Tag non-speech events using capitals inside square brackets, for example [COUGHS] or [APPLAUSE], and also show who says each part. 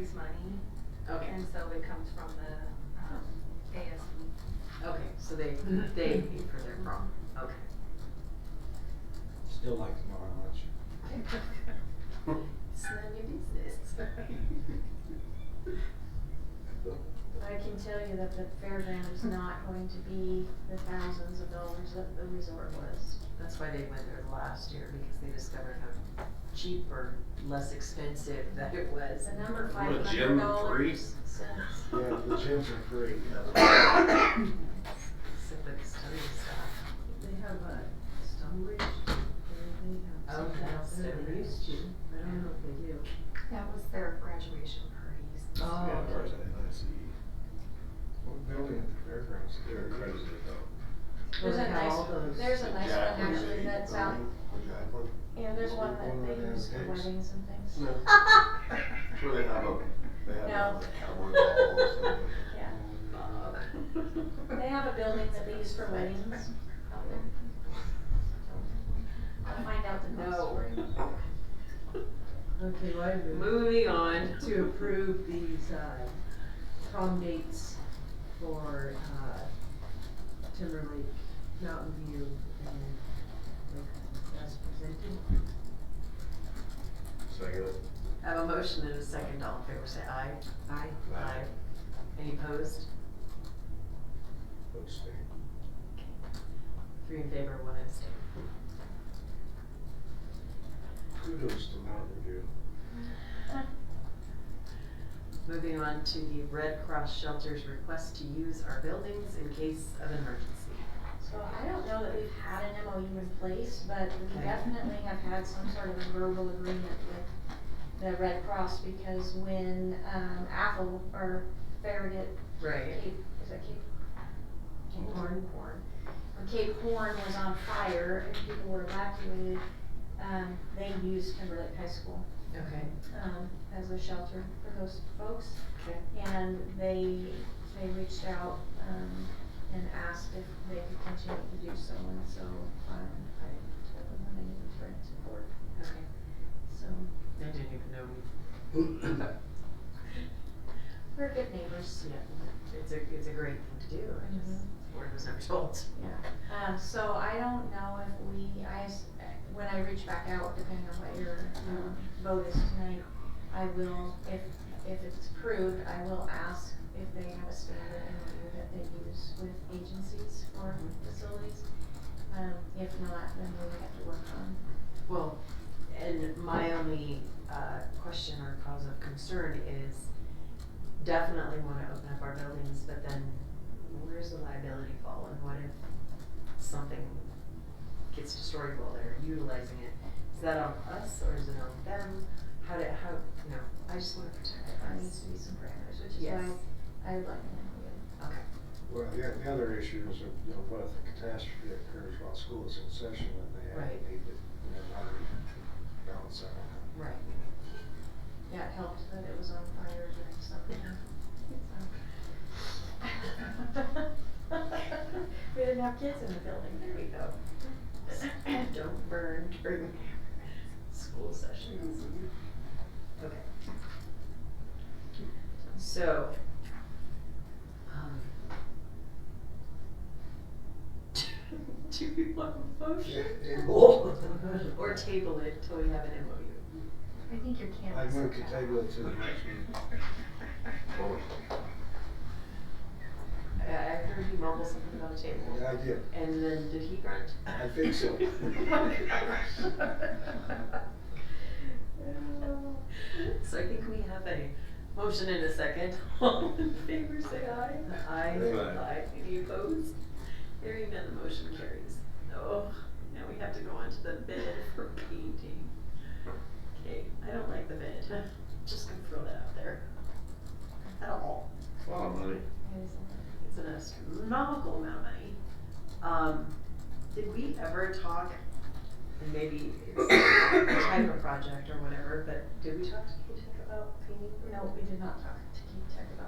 Speaker 1: is money,
Speaker 2: Okay,
Speaker 1: and so it comes from the, um, ASB.
Speaker 2: okay, so they, they pay for their prom, okay.
Speaker 3: Still like to know how much.
Speaker 2: It's none of your business.
Speaker 4: I can tell you that the fairground is not going to be the thousands of dollars that the resort was.
Speaker 2: That's why they went there last year, because they discovered how cheap or less expensive that it was.
Speaker 4: The number
Speaker 5: What,
Speaker 4: five hundred
Speaker 5: gym
Speaker 4: dollars.
Speaker 3: Yeah, the gyms are free.
Speaker 2: Except for the study stuff.
Speaker 6: They have a Stone Ridge, they have
Speaker 2: Oh,
Speaker 6: something out
Speaker 2: that's
Speaker 6: there
Speaker 2: Stone
Speaker 6: they used to,
Speaker 2: Ridge.
Speaker 6: I don't know if they do.
Speaker 1: That was their graduation parties.
Speaker 2: Oh,
Speaker 5: Yeah,
Speaker 2: okay.
Speaker 3: What building at the fairgrounds?
Speaker 5: They're crazy though.
Speaker 4: There's
Speaker 6: Well,
Speaker 4: a
Speaker 6: they have
Speaker 4: nice,
Speaker 6: all those-
Speaker 4: there's a nice one
Speaker 5: Jack was
Speaker 4: actually
Speaker 5: eight,
Speaker 4: that's out, and there's one that they use for weddings and things.
Speaker 5: No,
Speaker 1: [LAUGHS]
Speaker 5: sure they have a, they have
Speaker 4: No.
Speaker 5: a cowboy ball or something.
Speaker 4: Yeah,
Speaker 2: Bob.
Speaker 4: they have a building that they use for weddings out there. I'll find out the next
Speaker 2: No.
Speaker 4: spring.
Speaker 6: Okay, well, I move
Speaker 2: Moving on.
Speaker 6: to approve these, uh, prom dates for, uh, Timberlake, Mountain View, and Lakeland as presented.
Speaker 5: Second.
Speaker 2: Have a motion and a second, all in favor, say aye.
Speaker 6: Aye.
Speaker 2: Aye. Any opposed?
Speaker 5: Abstain.
Speaker 2: Three in favor, one abstain.
Speaker 3: Kudos to Mountain View.
Speaker 2: Moving on to the Red Cross Shelter's request to use our buildings in case of an emergency.
Speaker 4: So I don't know that we've had an MOU in place, but we
Speaker 2: Okay.
Speaker 4: definitely have had some sort of a verbal agreement with the Red Cross because when, um, Apple or Farragut,
Speaker 2: Right.
Speaker 4: Cape, is that Cape? Cape
Speaker 6: Horn.
Speaker 4: Horn. When Cape Horn was on fire and people were evacuated, um, they used Timberlake High School,
Speaker 2: Okay.
Speaker 4: um, as a shelter for those folks.
Speaker 2: Okay.
Speaker 4: And they, they reached out, um, and asked if they could continue to do so, and so, um, I told them that I needed to write to the board,
Speaker 2: Okay.
Speaker 4: so,
Speaker 2: I didn't even know we. [CLEARS THROAT]
Speaker 4: we're good neighbors.
Speaker 2: Yeah, it's a, it's a great thing to do, I just, word was never told.
Speaker 4: Yeah. Um, so I don't know if we, I, s- when I reach back out, depending on what your, um, vote is tonight, I will, if, if it's approved, I will ask if they have a standard interview that they use with agencies for facilities. Um, if not, then we'll have to work on
Speaker 2: Well, and my only, uh, question or cause of concern is definitely wanna open up our buildings, but then where's the liability fall and what if something gets destroyed while they're utilizing it? Is that on us or is it on them? How did, how, you know, I just wanna
Speaker 4: There
Speaker 2: protect
Speaker 4: needs
Speaker 2: us.
Speaker 4: to be some parameters, which is
Speaker 2: Yes.
Speaker 4: why I would like an
Speaker 2: Okay,
Speaker 3: Well, the, the other issue is, you know, what if the catastrophe occurs while school is in session and they have,
Speaker 2: Right.
Speaker 3: need to, you know, how do we balance [LAUGHS] that
Speaker 2: right.
Speaker 4: Yeah, it helped that it was on fire during summer. so. [LAUGHS] We didn't have kids in the building, there we go.
Speaker 2: Don't burn during school sessions. Okay. So, um. [LAUGHS] Do we want a motion?
Speaker 3: out?
Speaker 2: Or table it till we have an MOU?
Speaker 1: I think your
Speaker 3: I
Speaker 1: canvas.
Speaker 3: move to table it to the next meeting.
Speaker 2: I, I heard you mumble something about a table.
Speaker 3: Yeah, I did.
Speaker 2: And then, did he grunt?
Speaker 3: I think so.
Speaker 2: [LAUGHS] So I think we have a motion in a second. [LAUGHS] All in favor, say aye. Aye.
Speaker 3: Aye.
Speaker 2: Any opposed? Hearing none, the motion carries. Oh, now we have to go on to the bid for painting. Okay, I don't like the bid. [LAUGHS] Just gonna throw that out there. At all.
Speaker 5: A lot of money.
Speaker 2: It's an astronomical amount of money. Um, did we ever talk, and maybe it's [COUGHS] a type of project or whatever, but did we talk to K-Tech about painting?
Speaker 4: No, we did not talk to Keith Tech
Speaker 2: [LAUGHS]
Speaker 3: [LAUGHS]